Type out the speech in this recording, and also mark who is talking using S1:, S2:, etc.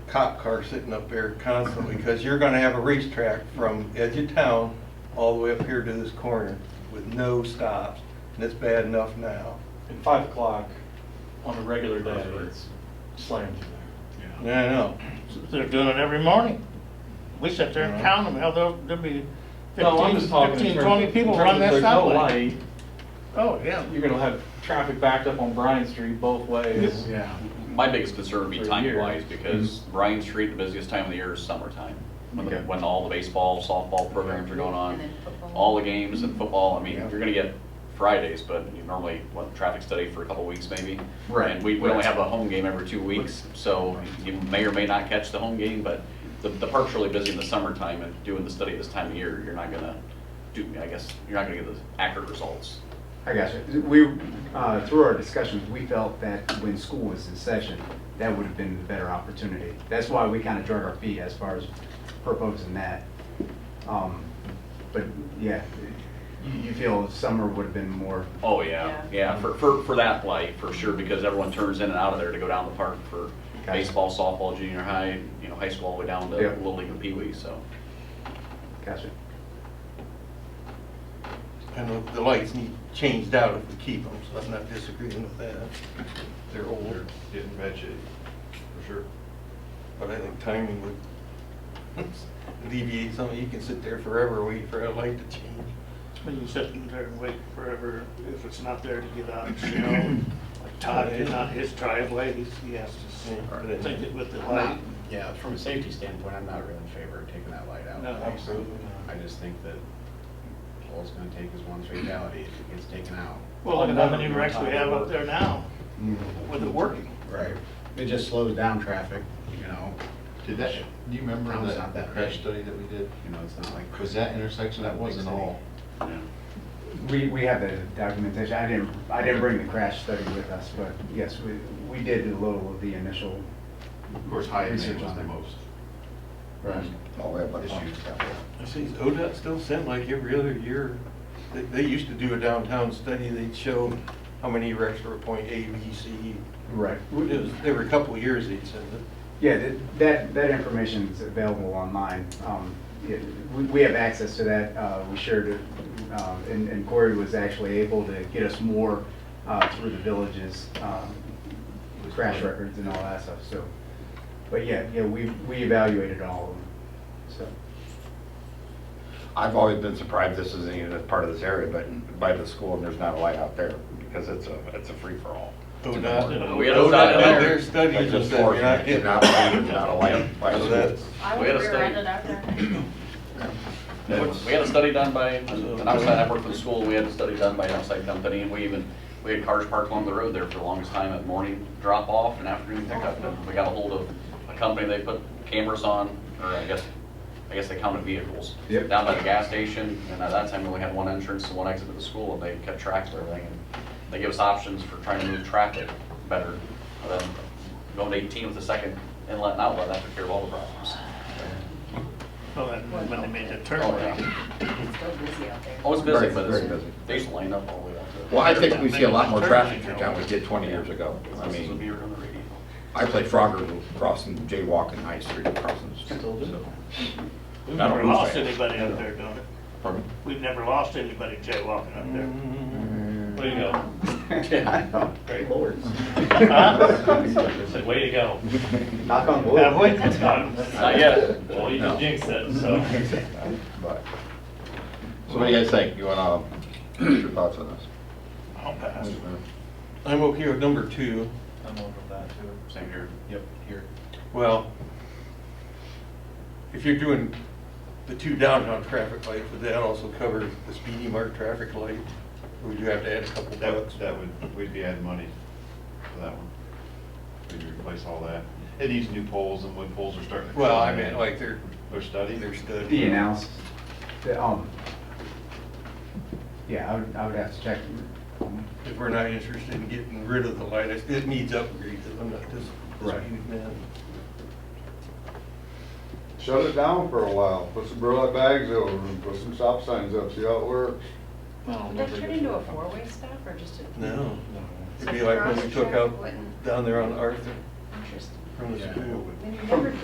S1: cop car sitting up there constantly, because you're gonna have a racetrack from edge of town all the way up here to this corner with no stops, and it's bad enough now.
S2: At five o'clock on a regular day, it's slammed in there.
S1: I know.
S3: They're doing it every morning. We sit there and count them, hell, there'll, there'll be
S2: No, I'm
S3: fifteen,
S2: just talking in
S3: fifteen,
S2: terms
S3: twenty
S2: of-
S3: people
S2: in terms
S3: run
S2: of
S3: that
S2: there's no
S3: stoplight.
S2: light,
S3: Oh, yeah.
S2: You're gonna have traffic backed up on Bryan Street both ways.
S4: Yeah.
S5: My biggest concern would be
S2: For
S5: time wise,
S2: years.
S5: because Bryan Street, the busiest time of the year is summertime. When, the-
S4: Mm-hmm. Okay.
S5: when all the baseball, softball programs are going
S6: And
S5: on,
S6: then football.
S5: all the games and football, I mean,
S1: Yeah.
S5: you're gonna get Fridays, but you normally, what, traffic study for a couple weeks maybe?
S4: Right,
S5: And we, we only
S4: right.
S5: have a home game every two weeks, so you may or may not catch the home game, but the, the park's really busy in the summertime and doing the study this time of year, you're not gonna do, I guess, you're not gonna get the accurate results.
S4: I got you. We, uh, through our discussions, we felt that when school was in session, that would have been the better opportunity. That's why we kind of drug our feet as far as proposing that. Um, But yeah, you- you feel summer would have been more,
S5: Oh, yeah, yeah, for, for, for that light, for sure, because everyone turns in and out of there to go down the park for
S4: Gotcha.
S5: baseball, softball, junior high, you know, high school, all the way down to
S4: Yeah.
S5: Little League and Pee Wee, so.
S4: gotcha.
S1: And the- the lights need changed out if we keep them, so I'm not disagreeing with that. They're older,
S7: Getting bad shape, for sure.
S1: but I think timing would alleviate some, you can sit there forever waiting for a light to change.
S3: When you sit in there and wait forever, if it's not there to get out, you know, like Todd did not his driveway, he's, he has to take it with the light.
S8: Yeah, from a safety standpoint, I'm not really in favor of taking that light out.
S3: No.
S1: Absolutely.
S8: I just think that all it's gonna take is one fatality if it gets taken out.
S3: Well, look at how many wrecks we have up there now
S4: Mm-hmm.
S3: with it working.
S8: Right. It just slows down traffic, you know,
S7: Did that, do you remember
S8: Sounds
S7: that
S8: not that
S7: crash
S8: big.
S7: study that we did?
S8: you know, it's not like.
S7: Was that intersection, that wasn't all?
S4: We, we have the documentation. I didn't, I didn't bring the crash study with us, but yes, we, we did a little of the initial.
S7: Of course, Hyatt
S4: Research
S7: was
S4: on
S7: the
S4: it.
S7: most.
S4: Right.
S7: Oh, we have like issues.
S1: I see, is ODOT still sent like every other year? They, they used to do a downtown study, they'd show how many wrecks were at point A, B, C.
S4: Right.
S1: It was, every couple of years they'd send it.
S4: Yeah, that- that, that information's available online. Um, yeah, We, we have access to that, uh, we shared it, um, and and Corey was actually able to get us more uh, through the villages, um, crash records and all that stuff, so. But yeah, yeah, we, we evaluated all of them,
S9: I've always been surprised this isn't even a part of this area, but by the school, and there's not a light out there, because it's a, it's a free-for-all.
S1: Oh, ODOT.
S5: We had a
S1: ODOT
S5: study
S1: did their
S5: there.
S1: studies
S9: It's
S1: and
S9: just
S1: said, you're not
S9: fortunate,
S1: getting.
S9: you're not, lighted, you're not a light by
S1: So
S9: the
S1: that's-
S9: school.
S6: I
S5: We
S6: would
S5: had a
S6: rear-end
S5: study.
S6: it after I high school.
S5: We had a study done by, an outside, I worked for the school, and we had a study done by an outside company, and we even, we had cars parked along the road there for the longest time at morning drop-off and afternoon pickup. And We got a hold of a company, they put cameras on, or I guess, I guess they counted vehicles.
S4: Yep.
S5: Down by the gas station, and at that time, we only had one entrance and one exit to the school, and they kept track of everything. And They gave us options for trying to move traffic better, than going to 18 with the second inlet and outlet, that took care of all the problems.
S3: Well, that, when they made that turn.
S5: Oh, yeah.
S6: It's still busy out there.
S5: Always busy,
S9: Very-
S5: but
S9: very
S5: it's-
S9: busy.
S5: they used to line up all the way up to.
S9: Well, I think we see a lot more traffic here than we did 20 years ago. I mean, I played Frogger crossing, jaywalking High Street crossing. the street.
S3: We've
S9: I don't
S3: never
S9: lose
S3: lost
S9: fans.
S3: anybody up there doing it.
S9: Pardon?
S3: We've never lost anybody jaywalking up there.
S1: Mm.
S2: Mm-hmm.
S3: There you go.
S4: so.
S8: Great lord.
S3: Said, way to go.
S4: Knock on wood.
S3: Have we? Not
S5: Not yet.
S3: Well, you
S9: just
S3: jinxed it,
S9: But- So what do you guys think? You wanna, what's your thoughts on
S3: I'll pass.
S9: this?
S1: I'm okay with number two.
S2: I'm over that too.
S5: Same here.
S8: Yep, here.
S1: Well, if you're doing the two downtown traffic lights, would that also cover the speedy mark traffic light? Or would you have to add a couple
S7: That would,
S1: bucks?
S7: that would, we'd be adding money for that one. We'd replace all that. And these new poles and wood poles are starting to.
S1: Well,
S7: come
S1: I mean,
S7: in.
S1: like they're,
S7: They're studying.
S1: they're studying.
S4: The analysis, the, um, yeah, I would, I would have to check.
S1: If we're not interested in getting rid of the light, it it needs upgrades, I'm not dis-
S4: Right.
S1: disputing that.
S10: Shut it down for a while, put some burlap bags over them, put some stop signs up, see how it works.
S6: Would
S5: Oh.
S6: that turn into a four-way stop or just a?
S1: No, it'd be like when we took out down there on Arthur
S6: Interesting.
S1: from the
S8: Yeah.
S1: school.
S6: Then you never